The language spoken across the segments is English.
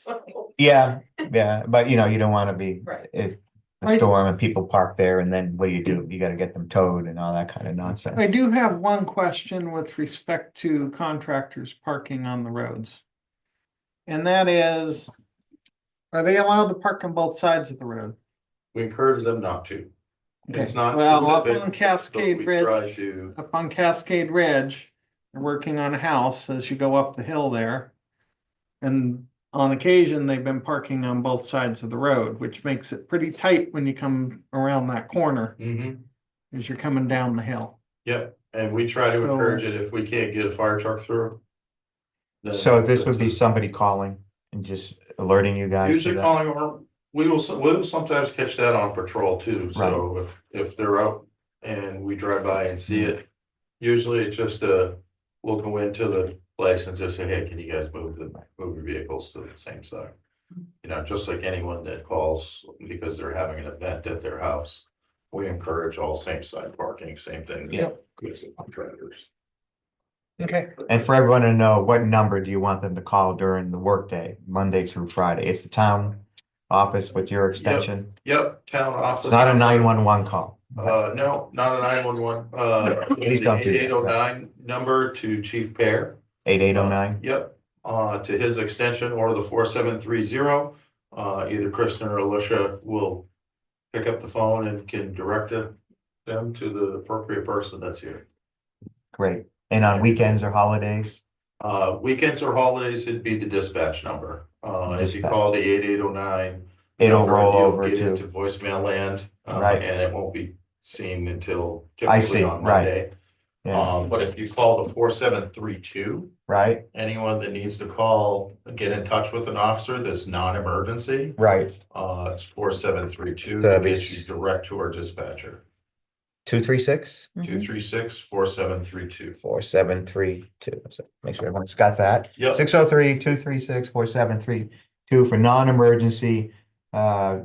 So, Yeah, yeah, but you know, you don't wanna be, Right. if the Right. storm and people park there and then what do you do? You gotta get them towed and all that kind of nonsense. I do have one question with respect to contractors parking on the roads. And that is, are they allowed to park on both sides of the road? We encourage them not to. It's Okay, not Well, up specific, on So Cascade we Ridge, try to, up on Cascade Ridge, they're working on a house as you go up the hill there. And on occasion, they've been parking on both sides of the road, which makes it pretty tight when you come around that corner Mm-hmm. Mhm. as you're coming down the hill. yep, and we try to So- encourage it if we can't get a fire truck through. then So this would be that's it. somebody calling and just alerting you guys to Usually that. calling or, we will, we will sometimes catch that on patrol too, so if, if they're out and we drive by and see it. Usually it's just a, we'll go into the place and just say, hey, can you guys move the, move your vehicles to the same side? You know, just like anyone that calls because they're having an event at their house, we encourage all same side parking, same thing. Yep. With the contractors. Okay. And for everyone to know, what number do you want them to call during the workday, Monday through Friday? It's the town office with your extension. Yep, town It's office. not a nine one one call. Uh, no, not a nine one one, uh, Please don't do that. eight oh nine number to Chief Pear. Eight eight oh nine. Yep, uh, to his extension or the four seven three zero, uh, either Kristen or Alicia will pick up the phone and can direct it them to the appropriate person that's here. Great. And on weekends or holidays, Uh, weekends or holidays, it'd be the dispatch number. Uh, if you call the eight eight oh nine. it'll roll over Get into to, voicemail land, uh, Right. and it won't be seen until I see, typically on right. Monday. yeah, Um, but if you call the four seven three two, right? anyone that needs to call, get in touch with an officer that's non-emergency. Right. Uh, it's four seven three two, That'd be gets you s- direct to our dispatcher, Two, three, six? two three six four seven three two. four seven three two. So Make sure everyone's got that. Yep. Six oh three, two three six, four seven three two for non-emergency uh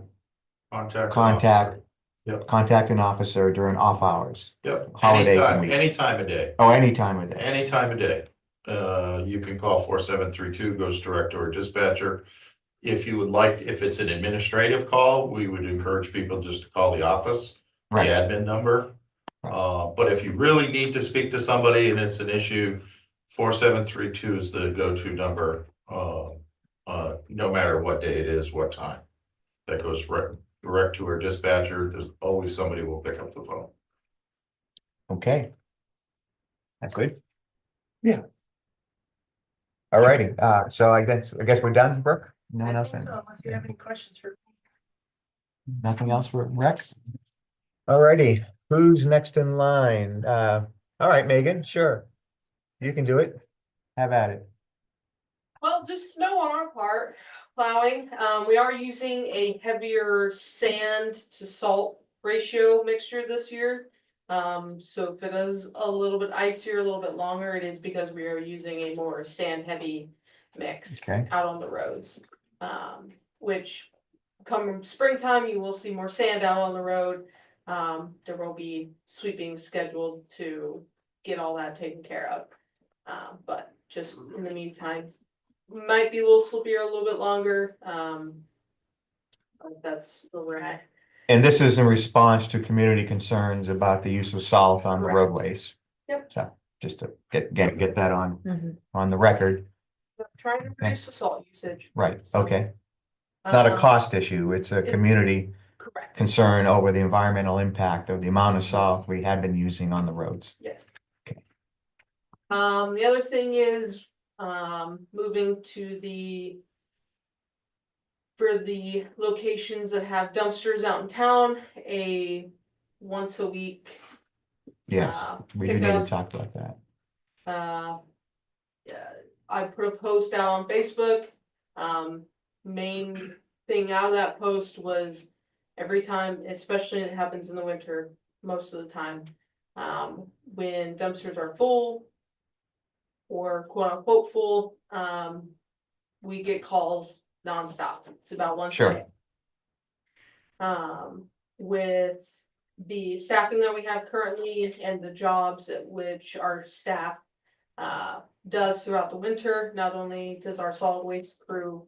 Contact. Contact. Yep. contact an officer during off hours. Yep, Holidays and anytime, week- any time of day, Oh, any time of day. any time of day. Uh, you can call four seven three two, goes direct to our dispatcher. If you would like, if it's an administrative call, we would encourage people just to call the office. the Right. admin number. Right. Uh, but if you really need to speak to somebody and it's an issue, four seven three two is the go-to number. Uh, uh, no matter what day it is, what time. That goes right, direct to our dispatcher. There's always somebody will pick up the phone. Okay. That's good. Yeah. All righty. Uh, so I guess, I guess we're done, Brooke? No one else? in? Unless you have any questions for. Nothing else for Rex? All righty. Who's next in line? Uh, all right, Megan, sure. You can do it. Have at it. Well, just snow on our part, plowing, um, we are using a heavier sand to salt ratio mixture this year. Um, so if it is a little bit icier, a little bit longer, it is because we are using a more sand heavy mix. Okay. Out on the roads, um, which come springtime, you will see more sand out on the road. Um, there will be sweeping scheduled to get all that taken care of. Um, but just in the meantime, might be a little slippier, a little bit longer, um. but That's where we're at. And this is in response to community concerns about the use of salt on the Correct. roadways. Yep. Mm-hmm. So just to get, get, get that on, on the record. We're Trying to reduce the salt usage. Right, okay. It's Not a Um, cost issue. It's a it- community Correct, concern over the environmental impact of the amount of salt we have been using on the roads. yes. Okay. Um, the other thing is, um, moving to the. For the locations that have dumpsters out in town, a once a week, Yes, Uh, we do need to pickup. talk about that. uh. Yeah, I put a post out on Facebook, um, main thing out of that post was every time, especially it happens in the winter, most of the time, um, when dumpsters are full or quote unquote full, um, we get calls nonstop. It's about once a Sure. day. Um, with the staffing that we have currently and the jobs at which our staff uh, does throughout the winter, not only does our solid waste crew